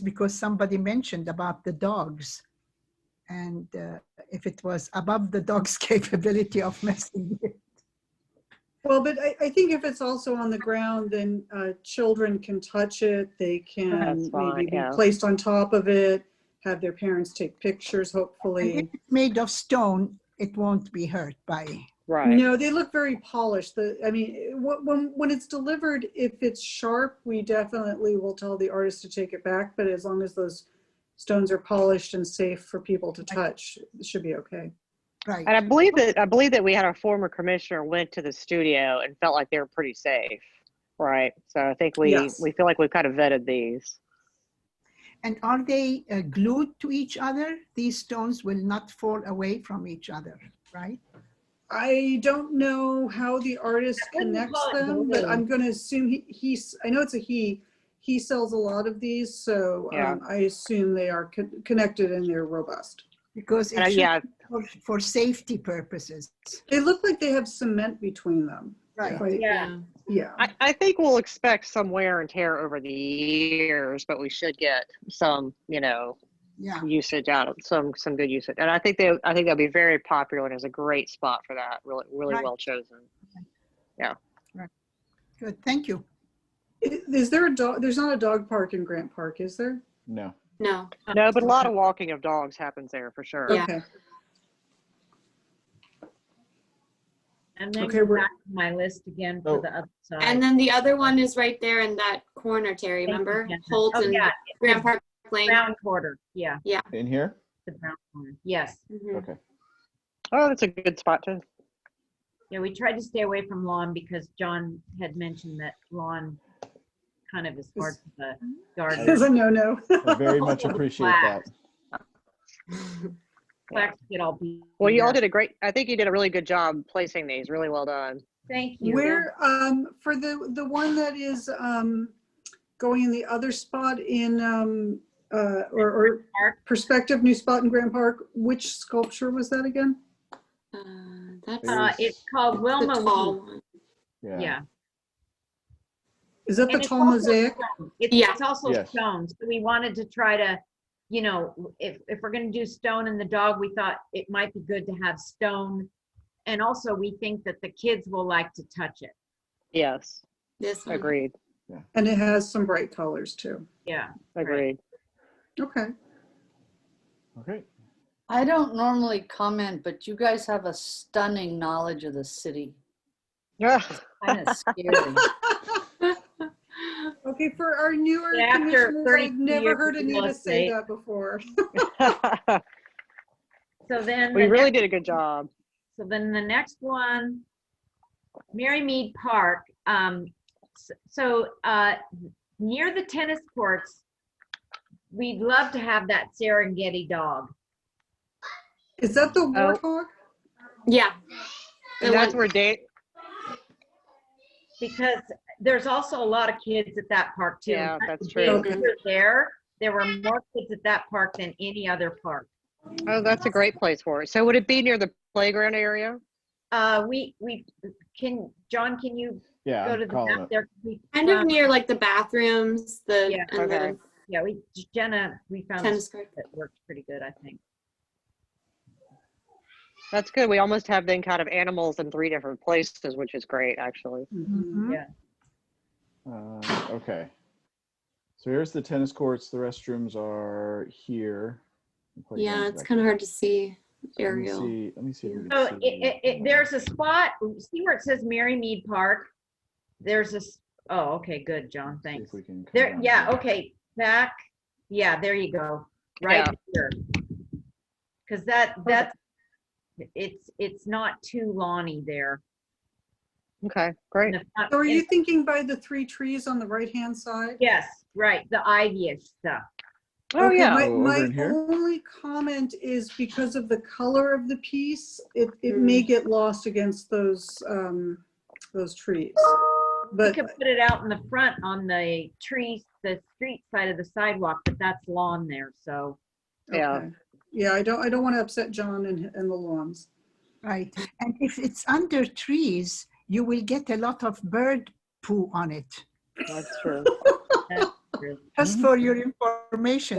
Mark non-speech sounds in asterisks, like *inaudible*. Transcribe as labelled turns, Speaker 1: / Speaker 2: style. Speaker 1: because somebody mentioned about the dogs. And uh, if it was above the dog's *laughs* capability of messing with.
Speaker 2: Well, but I, I think if it's also on the ground, then uh, children can touch it. They can
Speaker 3: That's why,
Speaker 2: maybe be
Speaker 3: yeah.
Speaker 2: placed on top of it, have their parents take pictures,
Speaker 1: If
Speaker 2: hopefully.
Speaker 1: it's made of stone, it won't be hurt by.
Speaker 3: Right.
Speaker 2: No, they look very polished. The, I mean, wh- when, when it's delivered, if it's sharp, we definitely will tell the artist to take it back. But as long as those stones are polished and safe for people to touch, it should be okay.
Speaker 1: Right.
Speaker 3: And I believe that, I believe that we had our former commissioner went to the studio and felt like they were pretty safe. Right. So I think we,
Speaker 2: Yes.
Speaker 3: we feel like we've kind of vetted these.
Speaker 1: And are they uh, glued to each other? These stones will not fall away from each other, right?
Speaker 2: I don't know how the artist connects them, but I'm gonna assume he, he's, I know it's a he, he sells a lot of these, so
Speaker 3: Yeah.
Speaker 2: um, I assume they are con- connected and they're robust.
Speaker 1: Because
Speaker 3: And I-
Speaker 1: it should,
Speaker 3: Uh, yeah,
Speaker 1: for, for safety purposes.
Speaker 2: They look like they have cement between them.
Speaker 1: Right.
Speaker 2: Like,
Speaker 3: Yeah.
Speaker 2: Yeah,
Speaker 3: I, I think we'll expect some wear and tear over the years, but we should get some, you know,
Speaker 1: Yeah.
Speaker 3: usage out of some some good usage. And I think they I think that'll be very popular and is a great spot for that. Really really
Speaker 1: Right.
Speaker 3: well chosen.
Speaker 1: Good. Thank you.
Speaker 2: I- is there a dog, there's not a dog park in Grant Park, is there?
Speaker 4: No.
Speaker 5: No.
Speaker 6: Uh,
Speaker 3: No, but a lot of walking of dogs happens there for sure.
Speaker 5: Yeah.
Speaker 2: Okay.
Speaker 6: And then
Speaker 2: Okay,
Speaker 6: go
Speaker 2: we're-
Speaker 6: back to my list again for
Speaker 4: Oh.
Speaker 6: the other side.
Speaker 5: And then the other one is right there in that corner, Terry,
Speaker 6: Thank you,
Speaker 5: remember?
Speaker 6: Jenna.
Speaker 5: Holt
Speaker 6: Oh,
Speaker 5: and
Speaker 6: yeah,
Speaker 5: Grand Park Lane.
Speaker 6: brown quarter, yeah,
Speaker 4: In here?
Speaker 6: the brown corner, yes.
Speaker 5: Mhm.
Speaker 4: Okay.
Speaker 3: Oh, that's a good spot too.
Speaker 6: Yeah, we tried to stay away from lawn because John had mentioned that lawn kind of is hard for the
Speaker 2: There's *laughs* a
Speaker 6: garden.
Speaker 2: no-no.
Speaker 4: I
Speaker 6: *laughs*
Speaker 4: very much appreciate that.
Speaker 6: Flax get all beat.
Speaker 3: Well you all
Speaker 6: up.
Speaker 3: did a great I think you did a really good job placing these. Really well done.
Speaker 6: Thank you.
Speaker 2: Where, um, for the, the one that is, um, going in the other spot in, um, uh, or, or
Speaker 6: Park.
Speaker 2: prospective new spot in Grant Park, which sculpture was that again?
Speaker 5: Uh, That's
Speaker 4: There
Speaker 6: Uh,
Speaker 4: is-
Speaker 6: it's called
Speaker 5: the
Speaker 6: Wilma
Speaker 5: tall
Speaker 6: Wheat,
Speaker 5: one.
Speaker 4: Yeah.
Speaker 6: yeah.
Speaker 2: Is that the
Speaker 6: And it's
Speaker 2: tall
Speaker 6: also
Speaker 2: mosaic?
Speaker 6: stone. It's,
Speaker 5: Yeah.
Speaker 6: it's also
Speaker 4: Yes.
Speaker 6: stone. So we wanted to try to, you know, if, if we're going to do stone and the dog, we thought it might be good to have stone. And also, we think that the kids will like to touch it.
Speaker 3: Yes.
Speaker 5: This one.
Speaker 3: Agreed.
Speaker 2: And it has some bright colors too.
Speaker 6: Yeah.
Speaker 3: Agreed.
Speaker 2: Okay.
Speaker 4: Okay.
Speaker 7: I don't normally comment, but you guys have a stunning knowledge of the city.
Speaker 3: Yeah.
Speaker 7: Kind of scary.
Speaker 2: Okay, for our newer
Speaker 6: Yeah, after
Speaker 2: commissioners, I've
Speaker 6: 32
Speaker 2: never
Speaker 6: years
Speaker 2: heard
Speaker 6: of real
Speaker 2: Anita say
Speaker 6: estate.
Speaker 2: that before.
Speaker 6: So then,
Speaker 3: we
Speaker 6: the
Speaker 3: really
Speaker 6: next-
Speaker 3: did a good job.
Speaker 6: so then the next one, Mary Mead Park. Um, s- so uh, near the tennis courts, we'd love to have that Serengeti dog.
Speaker 2: Is that
Speaker 6: Oh.
Speaker 2: the warthog?
Speaker 5: Yeah. The
Speaker 3: And that's
Speaker 5: one-
Speaker 3: where Dan
Speaker 6: because there's also a lot of kids at that park too.
Speaker 3: Yeah, that's
Speaker 6: When
Speaker 3: true.
Speaker 6: we were There, there were more kids at that park than any other park.
Speaker 3: Oh, that's a great place for it. So would it be near the playground area?
Speaker 6: Uh, we, we, can, John, can you
Speaker 4: Yeah.
Speaker 6: go to
Speaker 4: I'm
Speaker 6: the map
Speaker 4: calling it.
Speaker 6: there? We
Speaker 5: Kind of
Speaker 6: found-
Speaker 5: near like the bathrooms, the,
Speaker 6: uh, Yeah,
Speaker 5: and the
Speaker 3: okay.
Speaker 6: Yeah, we, Jenna, we found a
Speaker 5: tennis
Speaker 6: spot
Speaker 5: court.
Speaker 6: that worked pretty good, I think.
Speaker 3: That's good. We almost have then kind of animals in three different places, which is great, actually.
Speaker 6: Mm-hmm.
Speaker 2: Mm-hmm.
Speaker 1: Mhm.
Speaker 4: Uh, Okay. So here's the tennis courts. The restrooms are here. The
Speaker 5: Yeah,
Speaker 4: playground's
Speaker 5: it's
Speaker 4: back
Speaker 5: kind of
Speaker 4: there.
Speaker 5: hard to see
Speaker 4: Let me
Speaker 5: aerial.
Speaker 4: see- Let me see. if we
Speaker 6: So
Speaker 4: can
Speaker 6: it,
Speaker 4: see
Speaker 6: it, it, there's a spot, see where it says Mary Mead Park? There's a, s- oh, okay, good, John,
Speaker 4: see
Speaker 6: thanks.
Speaker 4: if we can come
Speaker 6: There,
Speaker 4: down
Speaker 6: yeah,
Speaker 4: here.
Speaker 6: okay, back, yeah, there you go, right
Speaker 3: Yeah.
Speaker 6: here. Because that, that's, it's, it's not too lawny there.
Speaker 3: Okay, great.
Speaker 6: in the front-
Speaker 2: So are you
Speaker 6: in-
Speaker 2: thinking by the three trees on the right-hand side?
Speaker 6: Yes, right, the ivy-ish stuff.
Speaker 3: Oh,
Speaker 2: Okay,
Speaker 3: yeah.
Speaker 2: My,
Speaker 4: Oh, over
Speaker 2: my
Speaker 4: in here?
Speaker 2: only comment is because of the color of the piece, it, it
Speaker 3: Mm.
Speaker 2: may get lost against those, um, those trees.
Speaker 6: You
Speaker 2: But,
Speaker 6: could put it out in the front on the trees, the street side of the sidewalk, but that's lawn there, so.
Speaker 3: Yeah.
Speaker 2: okay. yeah, I don't, I don't want to upset John and, and the lawns.
Speaker 1: Right. And if it's under trees, you will get a lot of bird poo on it.
Speaker 3: That's true.
Speaker 6: Andrew.
Speaker 1: Just for your information,